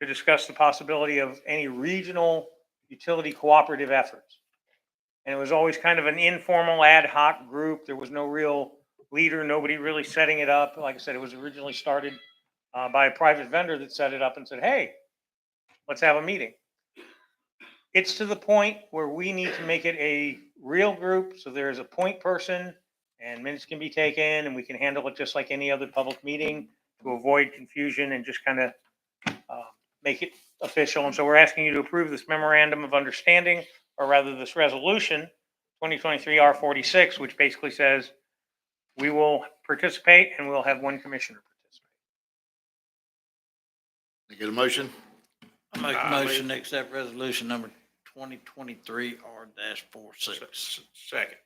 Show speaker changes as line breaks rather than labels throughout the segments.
to discuss the possibility of any regional utility cooperative efforts. And it was always kind of an informal ad hoc group. There was no real leader, nobody really setting it up. Like I said, it was originally started uh, by a private vendor that set it up and said, hey, let's have a meeting. It's to the point where we need to make it a real group, so there is a point person and minutes can be taken and we can handle it just like any other public meeting to avoid confusion and just kind of make it official. And so we're asking you to approve this memorandum of understanding, or rather this resolution, 2023 R 46, which basically says we will participate and we'll have one commissioner participate.
Can I get a motion?
I make a
Uh, we-
motion to accept resolution number twenty twenty-three R dash four six.
Second.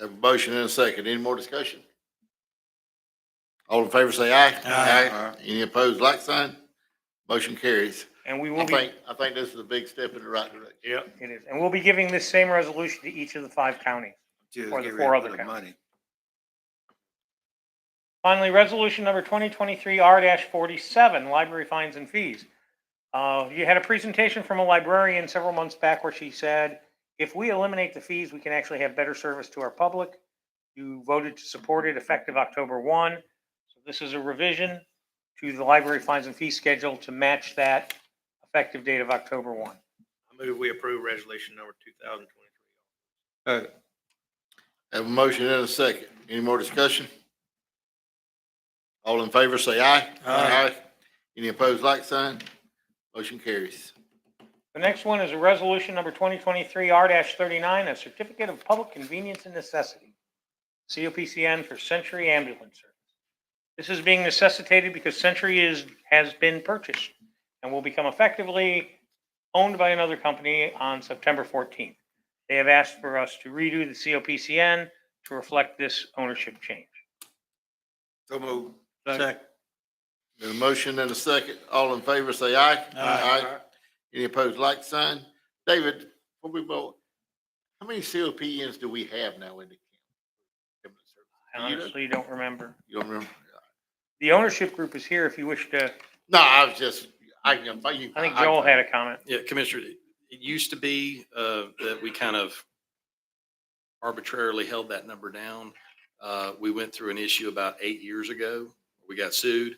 Have a motion and a second. Any more discussion? All in favor say aye.
Aye.
Any opposed, like sign? Motion carries.
And we
I
will be,
think, I think this is a big step in the right direction.
Yep.
it is, and we'll be giving this same resolution to each of the five counties.
Just
Or the
get rid
four
of
other
the
counties.
money.
Finally, resolution number 2023 R 47, library fines and fees. Uh, You had a presentation from a librarian several months back where she said, if we eliminate the fees, we can actually have better service to our public. You voted to support it effective October 1. So This is a revision to the library fines and fee schedule to match that effective date of October 1.
I move we approve resolution number two thousand twenty-three.
Have a motion and a second. Any more discussion? All in favor say aye.
Aye.
Any opposed, like sign? Motion carries.
The next one is a resolution number 2023 R-39, a certificate of public convenience and necessity, COPCN for Century Ambulance Service. This is being necessitated because Century is, has been purchased and will become effectively owned by another company on September 14th. They have asked for us to redo the COPCN to reflect this ownership change.
So move.
Second.
Got a motion and a second. All in favor say aye.
Aye.
Any opposed, like sign? David, before we vote, how many COPNs do we have now in the county?
I
You don't-
honestly don't remember.
You don't remember?
The ownership group is here if you wish to,
No, I was just, I can, you.
I think Joel had a comment.
Yeah, Commissioner, it used to be uh, that we kind of arbitrarily held that number down. Uh, We went through an issue about eight years ago. We got sued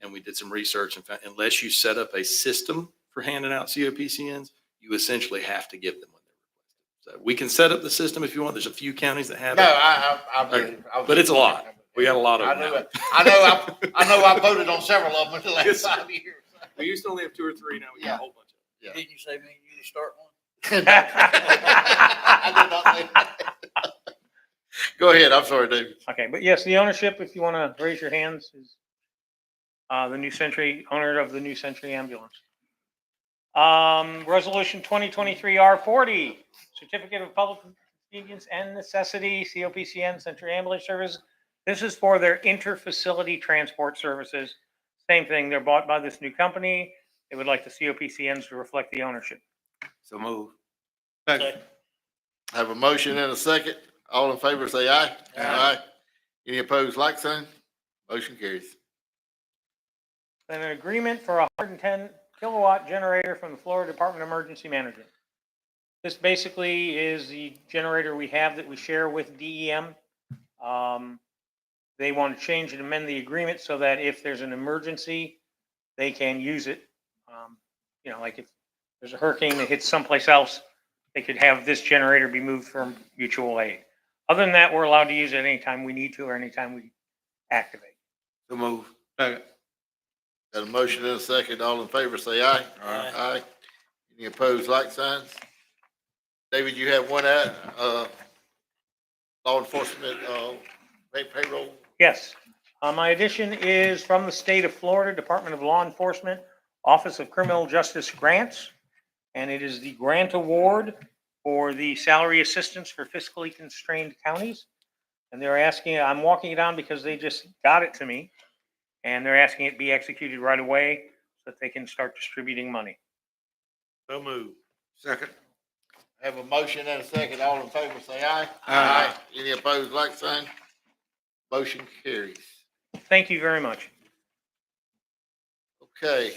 and we did some research and found unless you set up a system for handing out COPCNs, you essentially have to give them when they're requested. So we can set up the system if you want. There's a few counties that have
No,
it.
I, I, I.
Okay, but it's a lot. We got a lot of
I
them.
know,
now.
it. I know, I, I know I voted on several of them in the last
Yes, sir.
five years.
We used to only have two or three, now we got a whole bunch.
Yeah.
Did you say me, and you to start one?
I did not say- Go ahead, I'm sorry, David.
Okay, but yes, the ownership, if you want to raise your hands, is uh, the New Century, owner of the New Century Ambulance. Um, Resolution 2023 R40, Certificate of Public Convenience and Necessity, COPCN, Century Ambulance Service. This is for their inter-facility transport services. Same thing, they're bought by this new company. They would like the COPCNs to reflect the ownership.
So move.
Have a motion and a second. All in favor, say aye. Aye. Any opposed, like sign? Motion carries.
and an agreement for a hundred and ten kilowatt generator from the Florida Department of Emergency Management. This basically is the generator we have that we share with DEM. Um, they want to change and amend the agreement so that if there's an emergency, they can use it. Um, you know, like if there's a hurricane that hits someplace else, they could have this generator be moved from mutual aid. Other than that, we're allowed to use it anytime we need to or anytime we activate.
So move.
Got a motion and a second. All in favor, say aye.
Aye.
Aye. Any opposed, like signs? David, you have one at, uh, law enforcement, uh, pay- payroll.
Yes. Uh, My addition is from the state of Florida Department of Law Enforcement, Office of Criminal Justice Grants, and it is the grant award for the salary assistance for fiscally constrained counties. And they're asking, I'm walking it on because they just got it to me, and they're asking it be executed right away so that they can start distributing money.
So move.
Second.
Have a motion and a second. All in favor, say aye.
Aye.
Any opposed, like sign? Motion carries.
Thank you very much.
Okay,